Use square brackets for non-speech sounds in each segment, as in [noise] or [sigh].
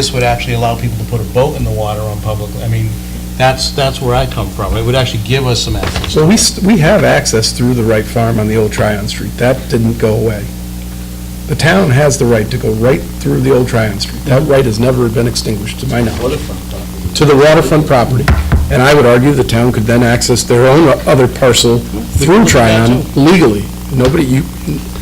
This would actually allow people to put a boat in the water on public, I mean, that's, that's where I come from. It would actually give us some access. So we, st- we have access through the Wright Farm on the old Tryon Street. That didn't go away. The town has the right to go right through the old Tryon Street. That right has never been extinguished, to my knowledge, to the waterfront property. And I would argue the town could then access their own other parcel through Tryon legally. Nobody, you,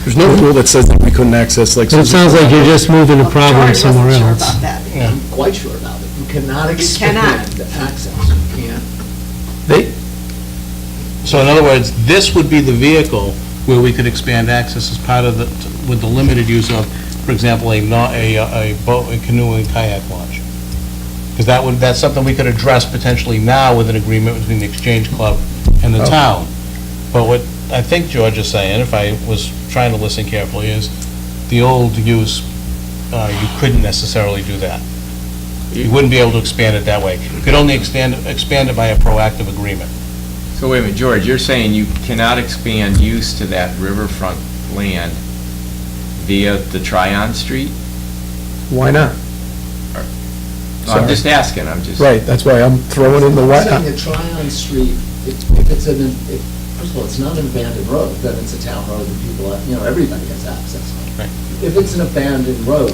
there's no rule that says that we couldn't access like. But it sounds like you're just moving the problem somewhere Charlie else. wasn't sure about that. I'm quite sure about it. You cannot cannot. expand the access. You can't. So in other words, this would be the vehicle where we could expand access as part of the, with the limited use of, for example, a, not, a, a boat, a canoe and kayak launch. Because that would, that's something we could address potentially now with an agreement between the Exchange Club and the Oh. town. But what I think George is saying, if I was trying to listen carefully, is the old use, uh, you couldn't necessarily do that. You wouldn't be able to expand it that way. You could only expand, expand it by a proactive agreement. So wait a minute, George, you're saying you cannot expand use to that riverfront land via the Tryon Street? Why not? I'm just asking, I'm just. Right, that's why I'm throwing in the I'm why saying not. that Tryon Street, if if it's an, if, first of all, it's not an abandoned road, then it's a town road and people, have- you know, everybody has access on Right. it. If it's an abandoned road,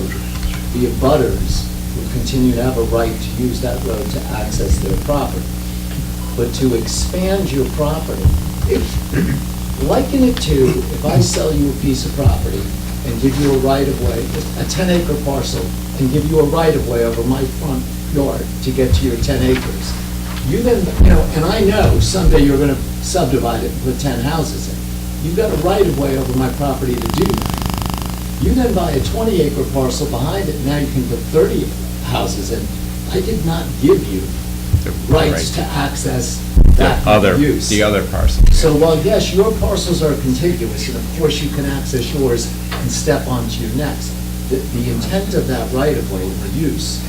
the abutters will continue to have a right to use that road to access their property. But to expand your property, if, liken it to, if I sell you a piece of property and give you a right-of-way, a 10-acre parcel, and give you a right-of-way over my front yard to get to your 10 acres. You then, you know, and I know someday you're going to subdivide it and put 10 houses in. You've got a right-of-way over my property to do that. You then buy a 20-acre parcel behind it, now you can put 30 houses in. I did not give you The- rights right. to access The that other, use. the other parcel. So while, yes, your parcels are contiguous, and of course you can access yours and step onto your next, the, the intent of that right-of-way or use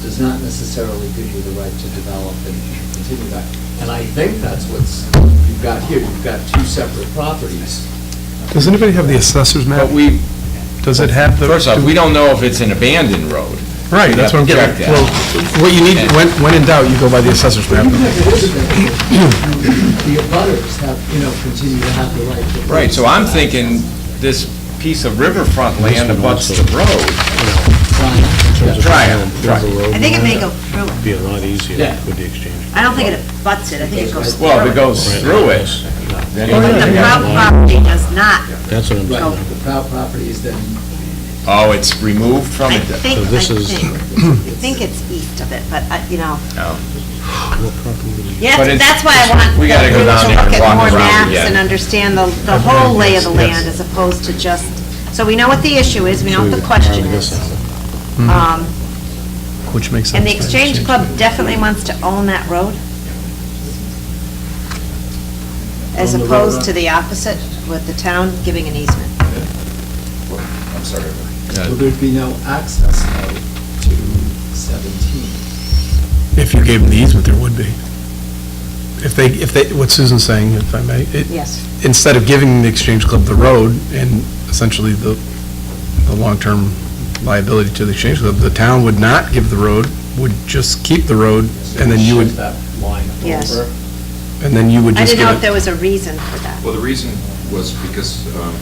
does not necessarily give you the right to develop and continue that. And I think that's what's, you've got here, you've got two separate properties. Does anybody have the assessor's But map? we, Does it have the? first off, we don't know if it's an abandoned road. Right, that's what I'm getting at. Check that. Well, what you need, when, when in doubt, you go by the assessor's But map. even if it is available, the abutters have, you know, continue to have the right to. Right, so I'm thinking this piece of riverfront land abuts the road. Tryon, I think it may go through it. be a lot easier Yeah. with the exchange. I don't think it butts it, I think it goes through it. Well, if it goes through it, then But the Prout property does not. That's what I'm Right, saying. the proud property is then oh, it's removed from I it. think, I this is- think, I think it's east of it, but, I- you know. Oh. Yeah, But it's- that's why I want. we gotta go people down there and to walk Look at more around maps again. and understand the, the whole lay of the land as opposed to just, so we know what the issue is, we know what the question is. Um, Which makes sense. And the Exchange Club definitely wants to own that road? As Own the road, opposed huh? to the opposite, with the town giving an easement. I'm sorry. Well, there'd be no access though to 17. If you gave them the easement, there would be. If they, if they, what Susan's saying, if I may, it- Yes. instead of giving the Exchange Club the road and essentially the, the long-term liability to the Exchange Club, the town would not give the road, would just keep the road, and then you would, Shift that line Yes. over. and then you would I just didn't know if give it. there was a reason for that. Well, the reason was because, um,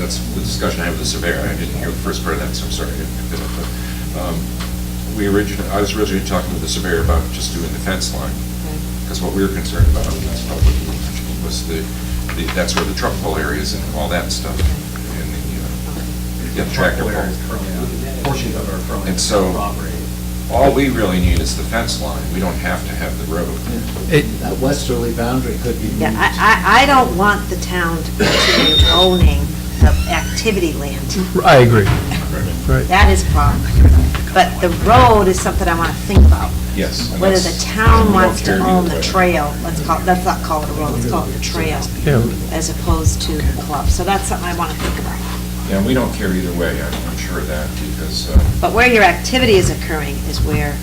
that's the discussion I had with the surveyor, I didn't hear the first part of that, so I'm sorry. I didn't pick that up. But, um, We originally, I was originally talking with the surveyor about just doing the fence line, because what we were concerned about, and that's not what we mentioned, was the, the- that's where the truck pull area is and all that stuff, and the, uh, yeah, tractor pull. Portion of our current And so- All we really need is the fence line, we don't have to have the road. That westerly boundary could be Yeah, moved. I, I, I don't want the town to continue owning the activity land. I [laughs] agree. That is wrong. But the road is something I want to think about. Yes. and Whether that's- the town we don't wants to care either own the way. trail, let's call, let's not call it a road, let's call it the trail, Yeah. as opposed to the club. So that's something I want to think about. Yeah, we don't care either way, I'm I'm sure of that, because, uh, But where your activity is occurring is where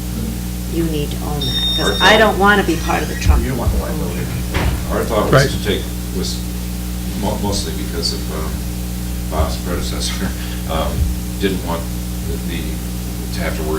you need to own that, because I don't want to be part of the Trump. Our thought Right. was to take, was mo- mostly because [laughs] of um, Bob's predecessor, um, didn't want the the have to worry